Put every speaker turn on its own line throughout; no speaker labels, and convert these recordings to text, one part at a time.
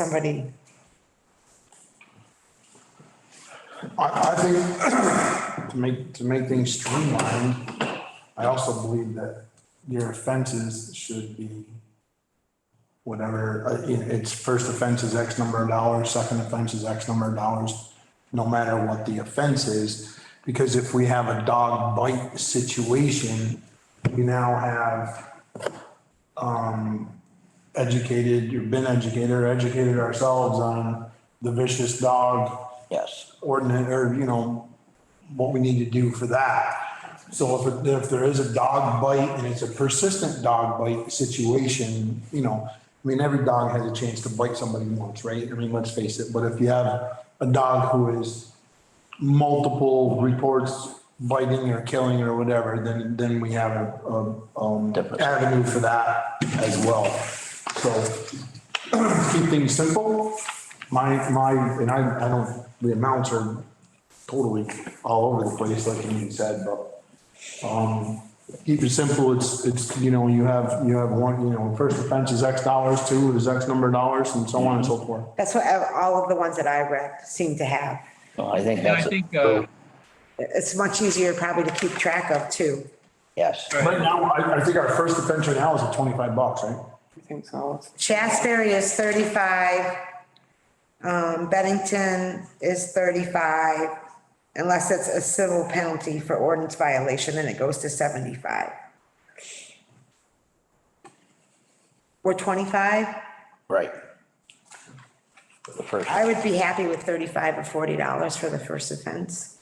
somebody,
I, I think to make, to make things streamlined, I also believe that your offenses should be whatever, uh, you know, it's first offense is X number of dollars, second offense is X number of dollars, no matter what the offense is. Because if we have a dog bite situation, we now have um, educated, you've been educated, or educated ourselves on the vicious dog
Yes,
ordinance, or, you know, what we need to do for that. So if, it- if there is a dog bite and it's a persistent dog bite situation, you know, I mean, every dog has a chance to bite somebody once, right? I mean, let's face it, but if you have a dog who is multiple reports biting or killing or whatever, then, then we have a, a, um,
Different.
avenue for that as well. So keep things simple. My, my, and I, I don't, the amounts are totally all over the place, like you said, but, um, keep it simple, it's, it's, you know, you have, you have one, you know, first offense is X dollars, two is X number of dollars, and so on and so forth.
that's what all of the ones that I read seem to have.
Well, I think
And I
that's,
think, uh,
It's much easier probably to keep track of too.
yes,
Right now, I, I think our first offense right now is at twenty-five bucks, right?
think so.
Shasberry is thirty-five. Um, Bennington is thirty-five, unless it's a civil penalty for ordinance violation, then it goes to seventy-five. Or twenty-five?
right. The first,
I would be happy with thirty-five or forty dollars for the first offense.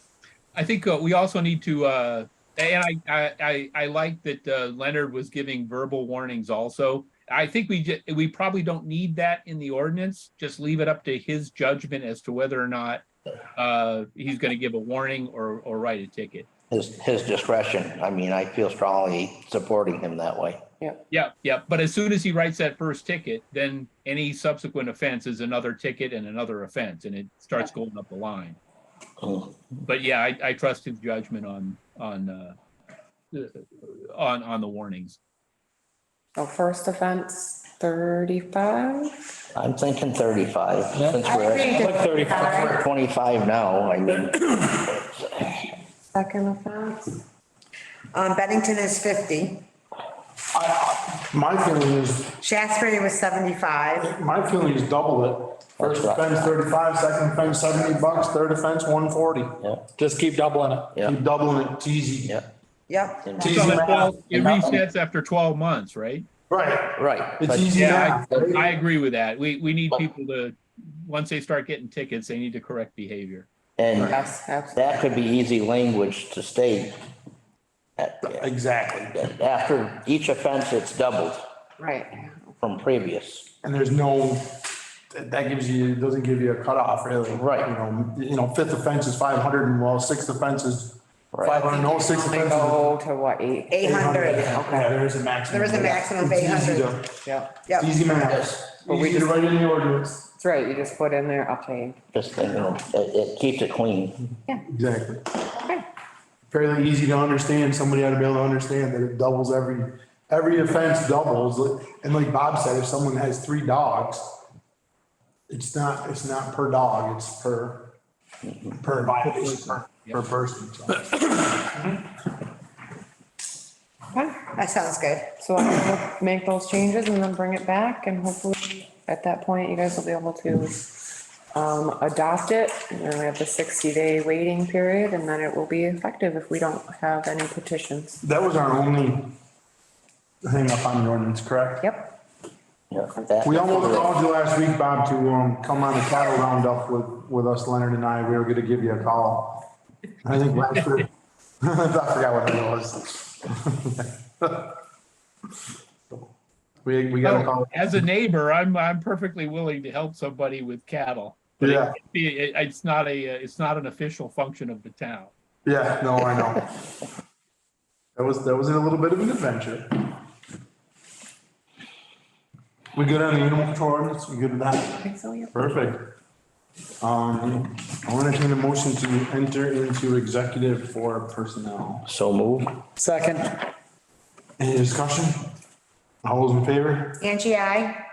I think uh, we also need to, uh, and I, I, I, I like that uh, Leonard was giving verbal warnings also. I think we, ju- we probably don't need that in the ordinance. Just leave it up to his judgment as to whether or not uh, he's going to give a warning or, or write a ticket.
his, his discretion. I mean, I feel strongly supporting him that way.
Yeah, yeah. But as soon as he writes that first ticket, then any subsequent offense is another ticket and another offense, and it starts going up the line.
Mm.
But yeah, I, I trust his judgment on, on, uh, on, on the warnings.
So first offense, thirty-five?
I'm thinking thirty-five, since we're at
Like thirty-five.
twenty-five now, I mean,
Second offense?
Um, Bennington is fifty,
My feeling is,
Shasberry was seventy-five,
my feeling is double it. First
That's right.
offense thirty-five, second offense seventy bucks, third offense one forty.
yeah,
Just keep doubling it.
yeah,
Keep doubling it, it's easy.
yeah,
yep.
So
Easy
that's
math.
all- It resets after twelve months, right?
Right,
right.
it's
But-
easy
Yeah,
now.
I- I agree with that. We, we need people to, once they start getting tickets, they need to correct behavior.
And
Yes, absolutely.
that could be easy language to state. At-
Exactly.
After each offense, it's doubled
Right.
from previous.
And there's no, that that gives you, it doesn't give you a cutoff really.
Right.
You know, you know, fifth offense is five hundred and well, sixth offense is
Right.
five hundred, no, sixth
They
offense is.
go to what, eight?
Eight hundred,
Yeah, there is a maximum.
There is a maximum of
It's easy
800.
to-
Yep.
yep.
It's easy math.
But we
Easy to
just-
write in the ordinance.
That's right, you just put in there up to eight.
Just thinking, it, it keeps it clean.
Exactly.
Okay.
Fairly easy to understand. Somebody ought to be able to understand that it doubles every, every offense doubles. And like Bob said, if someone has three dogs, it's not, it's not per dog, it's per, per violation, per- per person. so.
that sounds good.
So I'm gonna make those changes and then bring it back and hopefully at that point you guys will be able to um, adopt it. And then we have the sixty day waiting period and then it will be effective if we don't have any petitions.
That was our only hang up on the ordinance, correct?
Yep,
Yeah, that-
We almost called you last week, Bob, to, um, come on the cattle roundup with, with us, Leonard and I. We were gonna give you a call. I think last week, I forgot what it was. We, we got a call.
As a neighbor, I'm, I'm perfectly willing to help somebody with cattle. But it
Yeah,
can't be- it- It's not a, uh, it's not an official function of the town.
yeah, no, I know. That was, that was a little bit of an adventure. We good on the animal control ordinance? We good with that?
I think so, yep.
Perfect. Um, I want to entertain a motion to enter into executive for personnel.
So moved.
Second,
Any discussion? All those in favor?
Angie, I,